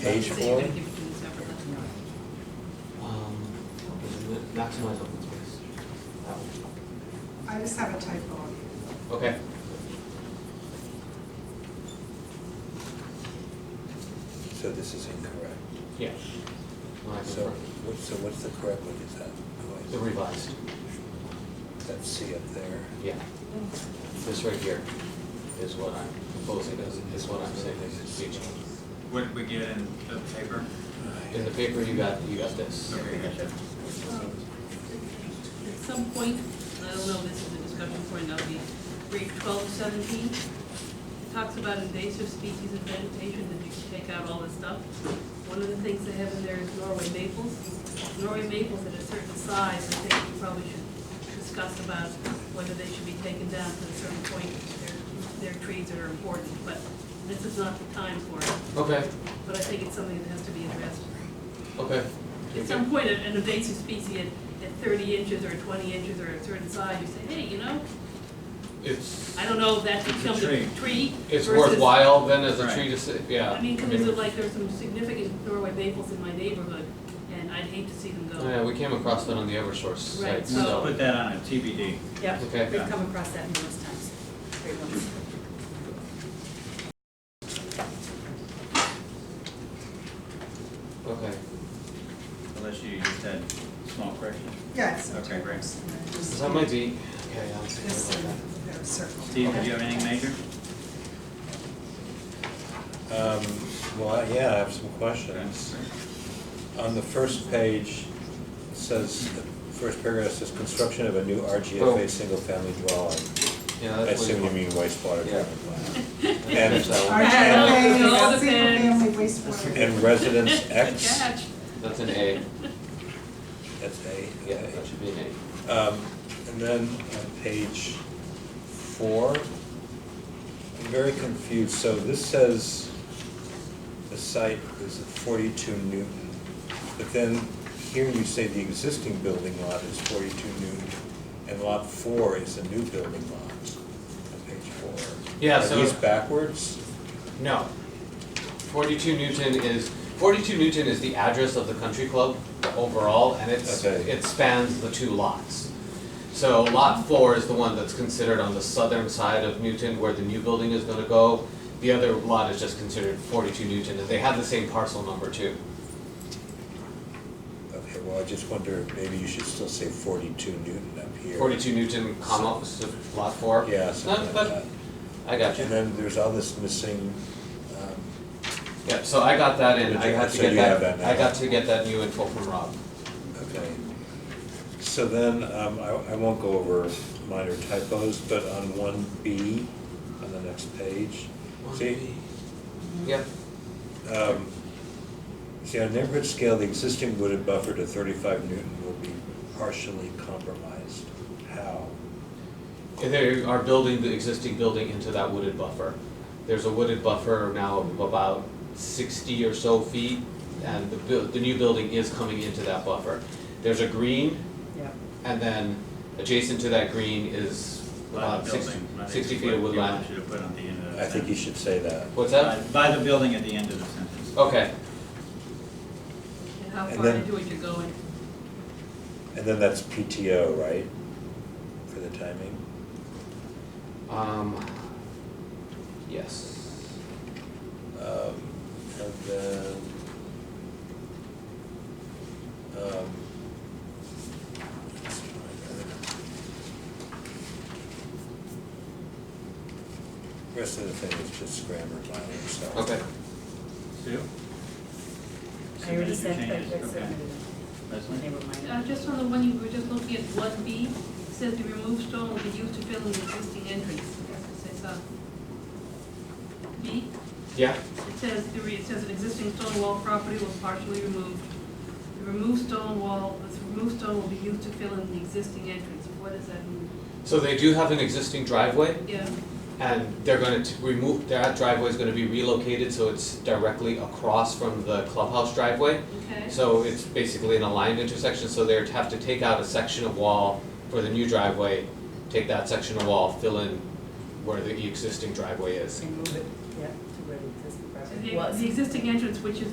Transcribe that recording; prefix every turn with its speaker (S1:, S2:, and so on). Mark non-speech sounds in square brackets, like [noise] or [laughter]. S1: Page
S2: So you're
S1: four?
S2: gonna give it to the separate, that's not-
S3: Um, maximize open space. That one.
S4: I just have a typo.
S3: Okay.
S1: So this is incorrect.
S3: Yeah. No, I
S1: So,
S3: prefer
S1: what- so what's the correct one, is that
S3: the
S1: noise?
S3: revised,
S1: That C up there?
S3: yeah. This right here is what I'm proposing, is, is what I'm saying is being changed.
S5: What did we get in the paper?
S3: In the paper, you got, you got this.
S5: Okay, gotcha.
S2: At some point, I don't know, this is a discussion point, that'll be grade twelve to seventeen. It Talks about invasive species of vegetation, that you should take out all this stuff. One of the things they have in there is Norway maples. Norway maples at a certain size, I think we probably should discuss about whether they should be taken down to a certain point. They're, they're trees that are important, but this is not the time for it.
S3: Okay,
S2: But I think it's something that has to be addressed.
S3: okay.
S2: At some point, an an invasive species at, at thirty inches or twenty inches or a certain size, you say, hey, you know,
S3: It's,
S2: I don't know if that
S5: It's a
S2: becomes
S5: tree.
S2: a tree
S3: it's
S2: versus.
S3: worthwhile then as a
S5: Right.
S3: tree to, sit- yeah.
S2: I mean, because of like, there's some significant Norway maples in my neighborhood, and I'd hate to see them
S3: Yeah,
S2: go.
S3: we came across that on the Eversource site,
S2: Right,
S5: Let's
S2: so-
S3: so.
S5: put that on a TBD.
S6: Yeah,
S3: Okay.
S6: we've come across that numerous times. Great ones.
S3: Okay,
S5: Unless you just had small corrections.
S4: Yeah, it's.
S5: Okay, great.
S3: so that might be, okay, I'll take a
S4: This,
S3: look at
S4: uh,
S3: that.
S4: there's circle.
S5: Steve, did you have anything major?
S1: Um, Well, I- yeah, I have some questions. On the first page, it says, the first paragraph says, construction of a new
S3: Oh.
S1: RGFA single-family dwelling.
S3: Yeah,
S1: I
S3: that's
S1: assume
S3: what you
S1: you
S3: want.
S1: mean wastewater
S3: Yeah.
S1: treatment
S3: [laughs]
S1: plant.
S3: That's- that's that one.
S4: RGFA,
S2: All the
S4: single-family wastewater.
S1: And residence
S2: [laughs] Good
S1: X,
S2: catch.
S3: That's an A,
S1: that's A.
S3: yeah, that should be an A.
S1: Um, And then on page four, I'm very confused. So this says the site is at 42 Newton, but then here you say the existing building lot is 42 Newton, and lot four is the new building lot on page four.
S3: Yeah,
S1: Are
S3: so-
S1: these backwards?
S3: No. Forty-two Newton is, forty-two Newton is the address of the country club overall, and it's,
S1: Okay.
S3: it spans the two lots. So lot four is the one that's considered on the southern side of Newton where the new building is gonna go. The other lot is just considered forty-two Newton, and they have the same parcel number too.
S1: Okay, well, I just wonder, maybe you should still say 42 Newton up here.
S3: Forty-two Newton, comma, so lot four.
S1: Yeah,
S3: No,
S1: something like
S3: but,
S1: that.
S3: I got you.
S1: And then there's all this missing, um,
S3: Yep, so I got that in, I had to
S1: So
S3: get
S1: you have
S3: that,
S1: that
S3: I
S1: now.
S3: got to get that new info from Rob.
S1: Okay. So then, um, I, I won't go over minor typos, but on one B, on the next page, see?
S3: Yep,
S1: um, See, on neighborhood scale, the existing wooded buffer to thirty-five Newton will be partially compromised. How?
S3: And they are building the existing building into that wooded buffer. There's a wooded buffer now of about sixty or so feet, and the buil- the new building is coming into that buffer. There's a green,
S6: Yeah.
S3: and then adjacent to that green is
S5: By
S3: about
S5: the
S3: six-
S5: building. I think
S3: 60
S5: is
S3: feet
S5: what
S3: of
S5: you
S3: woodland.
S5: want you to put on the end of the
S1: I think you should
S5: sentence.
S1: say that.
S3: What's
S5: By
S3: that?
S5: by the building at the end of the sentence.
S3: Okay,
S2: And how
S1: And
S2: far
S1: then-
S2: into it you're going.
S1: And then that's PTO, right? For the timing?
S3: um, yes.
S1: Um, and then, um, rest of the thing is just grammar minor, so.
S3: Okay,
S5: Sue?
S6: I already
S5: Submitted
S6: said
S5: your
S6: that,
S5: changes. Okay.
S6: uh, I submitted it.
S5: Leslie?
S6: Never mind.
S2: Uh, just on the one you were just looking at, one B, says the removed stone will be used to fill in the existing entrance. It says, uh, B?
S3: yeah,
S2: It says, the re- it says an existing stone wall property was partially removed. The removed stone wall, this removed stone will be used to fill in the existing entrance. What does that mean?
S3: so they do have an existing driveway,
S2: Yeah,
S3: And they're gonna t- remove, that driveway's gonna be relocated, so it's directly across from the clubhouse driveway.
S2: okay.
S3: So it's basically an aligned intersection, so they'd have to take out a section of wall for the new driveway, take that section of wall, fill in where the existing driveway is.
S6: Remove it, yeah, to where the existing
S2: So
S6: property
S2: The
S6: was.
S2: the existing entrance, which is